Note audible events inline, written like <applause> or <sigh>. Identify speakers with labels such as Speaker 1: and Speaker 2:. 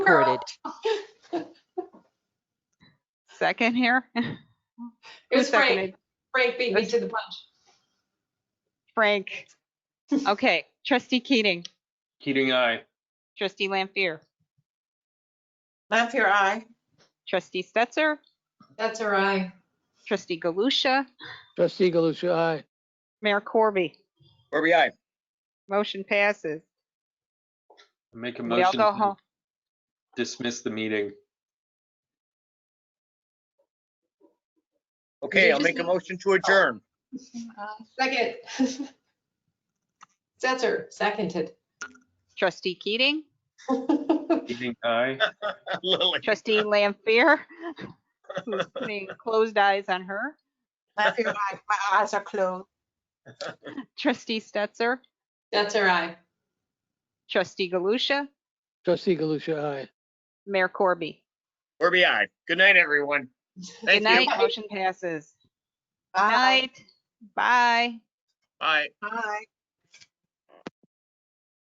Speaker 1: recorded.
Speaker 2: Second here? <laughs>
Speaker 1: It was Frank.
Speaker 2: Seconded.
Speaker 1: Frank beat me to the punch.
Speaker 2: Frank. Okay, trustee Keating,
Speaker 3: Keating, aye.
Speaker 2: trustee Lampier,
Speaker 4: Lampier, aye.
Speaker 2: trustee Stetser,
Speaker 1: That's all right.
Speaker 2: trustee Galusha,
Speaker 5: Trustee Galusha, aye.
Speaker 2: Mayor Corby.
Speaker 6: Corby, aye.
Speaker 2: Motion passes.
Speaker 3: Make a
Speaker 2: We all
Speaker 3: motion
Speaker 2: go home.
Speaker 3: to dismiss the meeting.
Speaker 6: Okay, I'll make a motion
Speaker 2: Oh.
Speaker 6: to adjourn. <laughs>
Speaker 1: Second. <laughs> Setzer, seconded. <laughs>
Speaker 2: Trustee Keating,
Speaker 3: Keating, aye.
Speaker 6: Lily. <laughs>
Speaker 2: trustee Lampier, who's putting closed eyes on her,
Speaker 4: Lampier, aye. My eyes are
Speaker 6: <laughs>
Speaker 4: closed.
Speaker 2: trustee Stetser,
Speaker 1: That's all right.
Speaker 2: trustee Galusha,
Speaker 5: Trustee Galusha, aye.
Speaker 2: Mayor Corby.
Speaker 6: Corby, aye. Good night,
Speaker 2: <laughs>
Speaker 6: everyone.
Speaker 2: Good
Speaker 6: Thank
Speaker 2: night,
Speaker 6: you.
Speaker 2: motion passes.
Speaker 4: Bye.
Speaker 2: Night, bye.
Speaker 6: Bye.
Speaker 4: Bye.